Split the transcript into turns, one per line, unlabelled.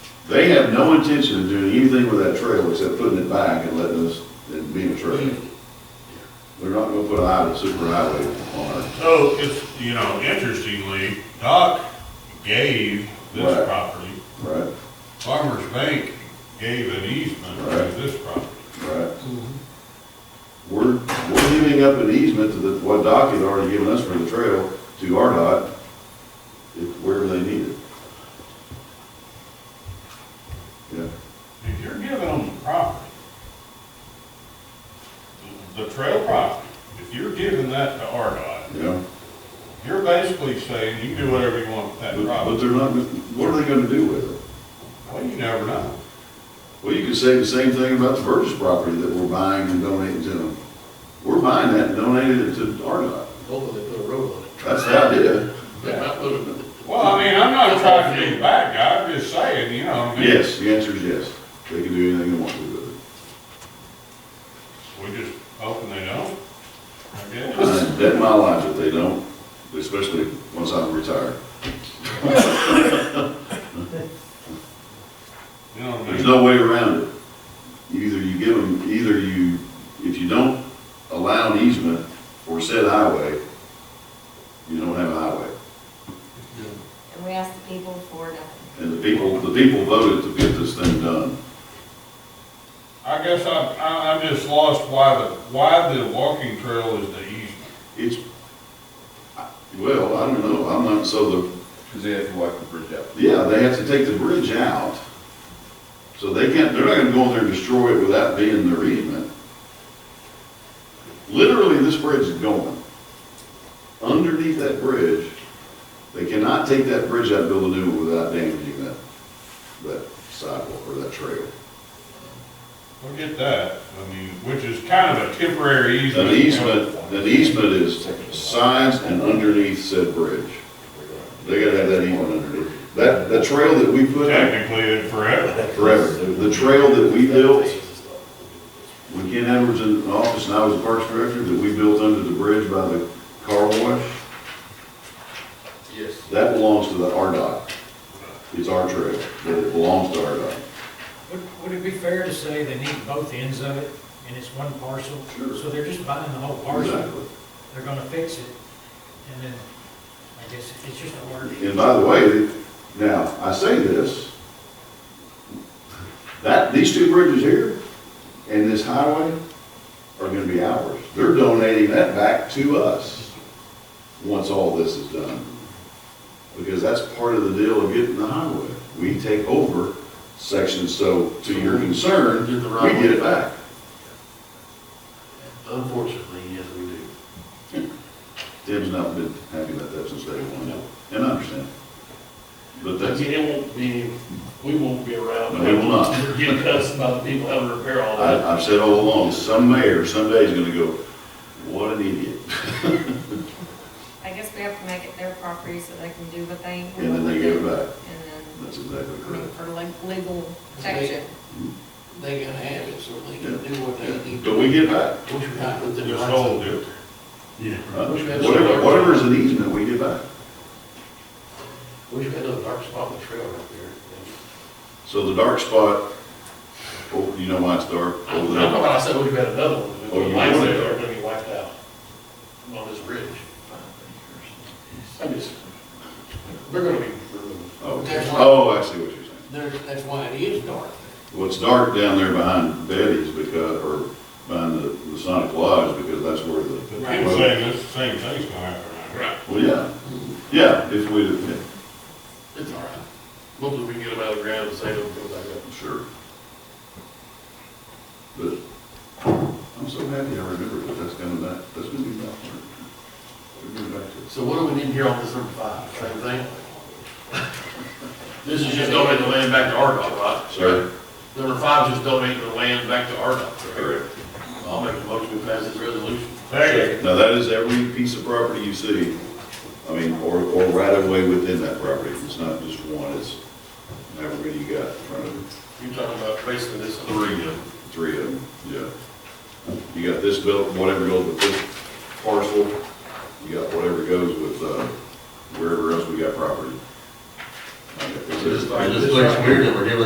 They have no intention of doing anything with that trail except putting it back and letting us, it being a trail. They're not gonna put a highway, super highway on it.
So it's, you know, interestingly, Doc gave
Right.
this property,
right,
Farmers Bank gave an easement
Right.
to this property.
right? We're, we're giving up an easement to the, what Doc had already given us for the trail to RDOT, if, wherever they need it. Yeah,
If you're giving them the property, the trail property, if you're giving that to RDOT,
yeah,
you're basically saying you can do whatever you want with that
but, but
property.
they're not, what are they gonna do with it?
Well, you never know.
Well, you could say the same thing about the Burgess property that we're buying and donating to them. We're buying that and donating it to RDOT.
Hopefully they put a road on it.
That's the idea.
They might put a-
Well, I mean, I'm not trying to be a bad guy, I'm just saying, you know, I mean,
Yes, the answer is yes. They can do anything they want to with it.
we just hoping they don't. I guess.
I bet my life that they don't, especially once I'm retired.
You know what I
There's
mean?
no way around it. Either you give them, either you, if you don't allow an easement for said highway, you don't have a highway.
And we asked the people for nothing.
And the people, the people voted to get this thing done.
I guess I'm, I- I'm just lost why the, why the walking trail is the easement.
It's, I- well, I don't know, I'm not, so the,
Because they have to wipe the bridge out.
yeah, they have to take the bridge out. So they can't, they're not gonna go in there and destroy it without being their easement. Literally, this bridge is going. Underneath that bridge, they cannot take that bridge out, and build a new one without damaging that, that sidewalk or that trail.
We'll get that, I mean, which is kind of a temporary easement.
An easement, an easement is signs and underneath said bridge. They gotta have that easement underneath. That, that trail that we put in
Technically, it's forever.
forever, the trail that we built, when Ken Edwards in office and I was the parks director, that we built under the bridge by the car wash,
Yes.
that belongs to the RDOT. It's our trail, but it belongs to RDOT.
Would, would it be fair to say they need both ends of it, and it's one parcel?
Sure.
So they're just buying the whole parcel,
Exactly.
they're gonna fix it, and then, I guess, it's just a word.
And by the way, now, I say this, that, these two bridges here and this highway are gonna be ours. They're donating that back to us, once all this is done. Because that's part of the deal of getting the highway. We take over sections, so to your concern,
Get the
we
right
get
way.
it back.
Unfortunately, yes, we do.
Tim's not been happy about that since day one, and I understand. But
But
that's,
again, it won't be, we won't be around.
No, we will not.
We're getting cussed by the people having to repair all that.
I, I've said all along, some mayor someday is gonna go, what an idiot.
I guess we have to make it their property so they can do what they.
And then they give it back.
And then,
That's exactly
I mean,
correct.
for like legal protection.
They gotta have it, so they can do what they need.
But we get back.
Don't you have with the.
Just hold it.
huh? Whatever, whatever is an easement, we get back.
We should have a dark spot on the trail right there.
So the dark spot, oh, you know why it's dark?
I
Oh,
don't know
that-
why I said we've had another one.
Oh, you
Lights
would.
there are gonna be wiped out on this bridge. I just, they're gonna be removed.
Oh,
There's one.
oh, I see what you're saying.
There, that's why it is dark.
What's dark down there behind Betty's because, or behind the the Sonic Lodge, because that's where the.
People saying this, same thing's gonna happen. Right.
Well, yeah, yeah, if we, yeah,
It's all right. Hopefully we can get them out of the ground and save them, go back up.
sure. But I'm so happy I remembered that that's coming back, that's gonna be back. We're going back to it.
So what do we need here on this number five, same thing? This is just donating the land back to RDOT, right?
Sorry?
Number five is just donating the land back to RDOT. Correct. I'll make a motion to pass this resolution.
There you
Now, that is every piece of property you see, I mean, or, or right of way within that property. It's not just one, it's however many you got in front of it.
You're talking about basically this
Three
three,
of them. Three of them, yeah. You got this built, whatever goes with this parcel, you got whatever goes with, uh, wherever else we got property. I got this.
It just looks weird that we're giving